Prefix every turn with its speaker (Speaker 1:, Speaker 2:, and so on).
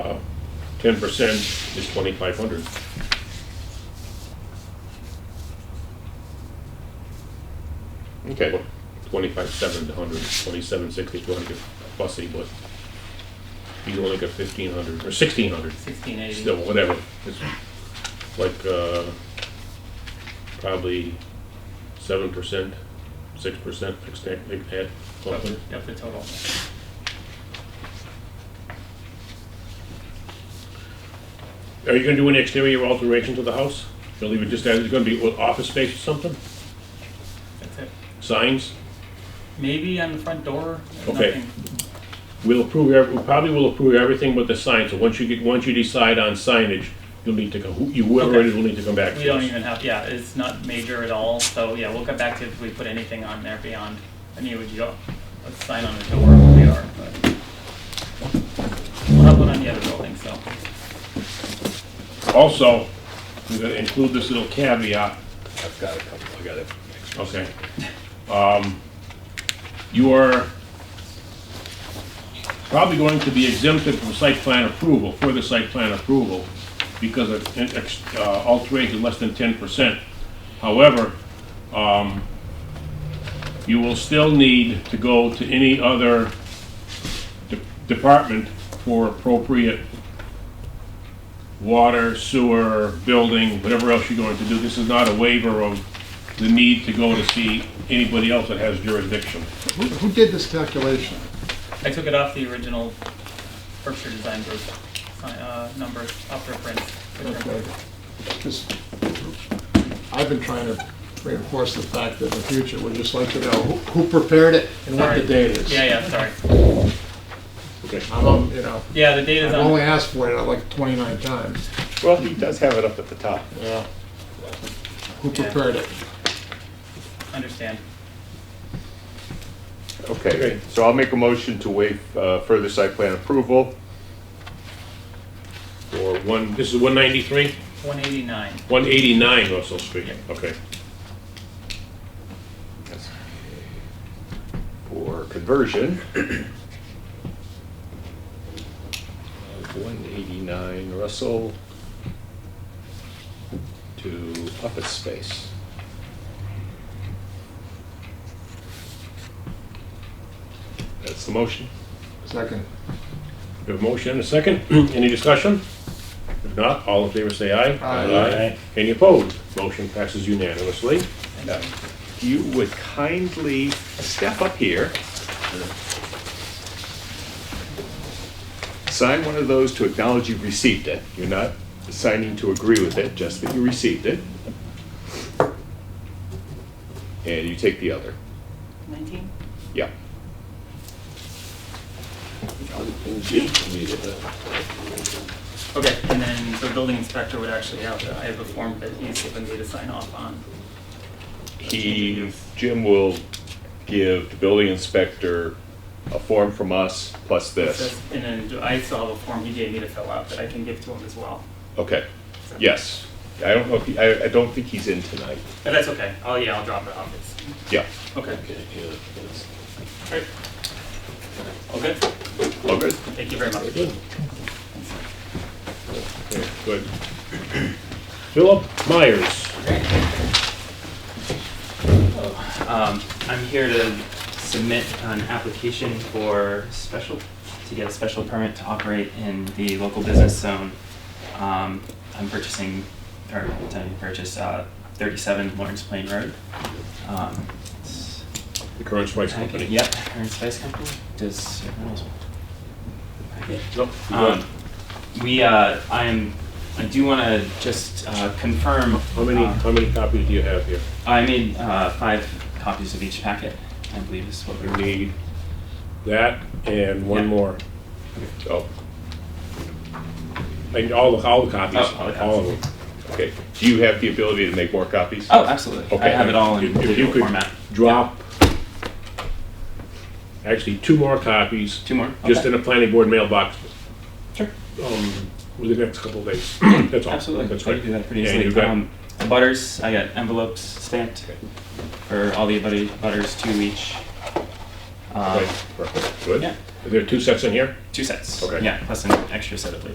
Speaker 1: ten percent is twenty-five hundred. Okay, well, twenty-five seven to hundred, twenty-seven sixty to hundred, fussy, but you only got fifteen hundred, or sixteen hundred,
Speaker 2: Sixteen eighty.
Speaker 1: still, whatever. It's like, uh, probably seven percent, six percent fixed tax, big head, something.
Speaker 2: Yep, the total.
Speaker 1: Are you gonna do any exterior alterations to the house? You'll leave it just as, it's gonna be what, office space or something?
Speaker 2: That's it.
Speaker 1: Signs?
Speaker 2: Maybe on the front door,
Speaker 1: Okay.
Speaker 2: nothing.
Speaker 1: We'll approve, ev- we probably will approve everything but the sign, so once you get, once you decide on signage, you'll need to go, who- you- whoever it is will need to come back
Speaker 2: We
Speaker 1: to
Speaker 2: don't
Speaker 1: us.
Speaker 2: even have, yeah, it's not major at all, so yeah, we'll come back to if we put anything on there beyond, I mean, would you go, a sign on the door, where we are, but. We'll have one on the other building, so,
Speaker 1: Also, we're gonna include this little caveat,
Speaker 3: I've got a couple, I got it.
Speaker 1: okay? Um, You are probably going to be exempted from site plan approval, further site plan approval, because of an ex- uh, alteration less than ten percent. However, um, you will still need to go to any other de- department for appropriate water, sewer, building, whatever else you're going to do. This is not a waiver of the need to go to see anybody else that has jurisdiction.
Speaker 4: Who who did this calculation?
Speaker 2: I took it off the original Berkshire Design Group, sign- uh, numbers, upper print.
Speaker 4: Just- I've been trying to reinforce the fact that in the future, we'd just like to know who who prepared it and what
Speaker 2: Sorry.
Speaker 4: the date is.
Speaker 2: Yeah, yeah, sorry.
Speaker 3: Okay.
Speaker 4: I'm, um, you know,
Speaker 2: Yeah, the data's
Speaker 4: I've
Speaker 2: on.
Speaker 4: only asked for it uh, like 29 times.
Speaker 3: Well, he does have it up at the top.
Speaker 4: Who
Speaker 2: Yeah.
Speaker 4: prepared it?
Speaker 2: Understand.
Speaker 3: Okay, so I'll make a motion to waive uh, further site plan approval.
Speaker 1: Or one, this is 193?
Speaker 2: 189.
Speaker 1: 189 Russell Street, okay.
Speaker 3: For conversion. 189 Russell to office space. That's the motion.
Speaker 4: Second.
Speaker 1: We have a motion and a second. Any discussion? If not, all in favor say aye.
Speaker 4: Aye.
Speaker 1: Any opposed? Motion passes unanimously.
Speaker 3: Now, if You would kindly step up here. Sign one of those to acknowledge you received it. You're not signing to agree with it, just that you received it. And you take the other.
Speaker 2: 19?
Speaker 3: Yeah.
Speaker 2: Okay, and then the building inspector would actually have, I have a form that he's given me to sign off on.
Speaker 3: He, Jim will give the building inspector a form from us plus this.
Speaker 2: That's- And then do- I still have a form he gave me to fill out that I can give to him as well.
Speaker 3: Okay, yes. I don't know if, he- I, I don't think he's in tonight.
Speaker 2: But that's okay. Oh, yeah, I'll drop it off. It's,
Speaker 3: Yeah.
Speaker 2: okay. All right. Okay,
Speaker 3: All good.
Speaker 2: thank you very much.
Speaker 1: Okay, Good. Philip Myers.
Speaker 5: Um, I'm here to submit an application for special, to get a special permit to operate in the local business zone. Um, I'm purchasing, or intending to purchase, uh, thirty-seven Lawrence Plain Road. Um, it's-
Speaker 1: The current spice company.
Speaker 5: Yep, Aaron Spice Company, does everyone else? Okay.
Speaker 1: Nope, you go
Speaker 5: Um,
Speaker 1: ahead.
Speaker 5: we, uh, I am, I do wanna just, uh, confirm.
Speaker 1: How many,
Speaker 5: uh,
Speaker 1: how many copies do you have here?
Speaker 5: I made uh, five copies of each packet, I believe is what we
Speaker 1: You
Speaker 5: were
Speaker 1: need that and one
Speaker 5: Yeah.
Speaker 1: more.
Speaker 3: Oh,
Speaker 1: And all, the all the copies,
Speaker 5: Oh, all the
Speaker 1: all of them.
Speaker 3: okay. Do you have the ability to make more copies?
Speaker 5: Oh, absolutely. I
Speaker 3: Okay.
Speaker 5: have it all in
Speaker 1: If- if you
Speaker 5: digital
Speaker 1: could
Speaker 5: format.
Speaker 1: Drop, actually, two more copies.
Speaker 5: Two more?
Speaker 1: Just
Speaker 5: Okay.
Speaker 1: in a planning board mailbox
Speaker 5: Sure,
Speaker 1: um, within the next couple of days. That's all.
Speaker 5: absolutely.
Speaker 1: That's
Speaker 5: I
Speaker 1: great.
Speaker 5: can do that pretty
Speaker 1: Yeah,
Speaker 5: easily.
Speaker 1: you've got-
Speaker 5: Um, the butters, I got envelopes stamped for all the buddy- butters, two each. Um,
Speaker 1: Right, perfect. Good.
Speaker 5: yeah.
Speaker 1: Are there two sets in here?
Speaker 5: Two sets.
Speaker 1: Okay.
Speaker 5: Yeah, plus an extra set of labels.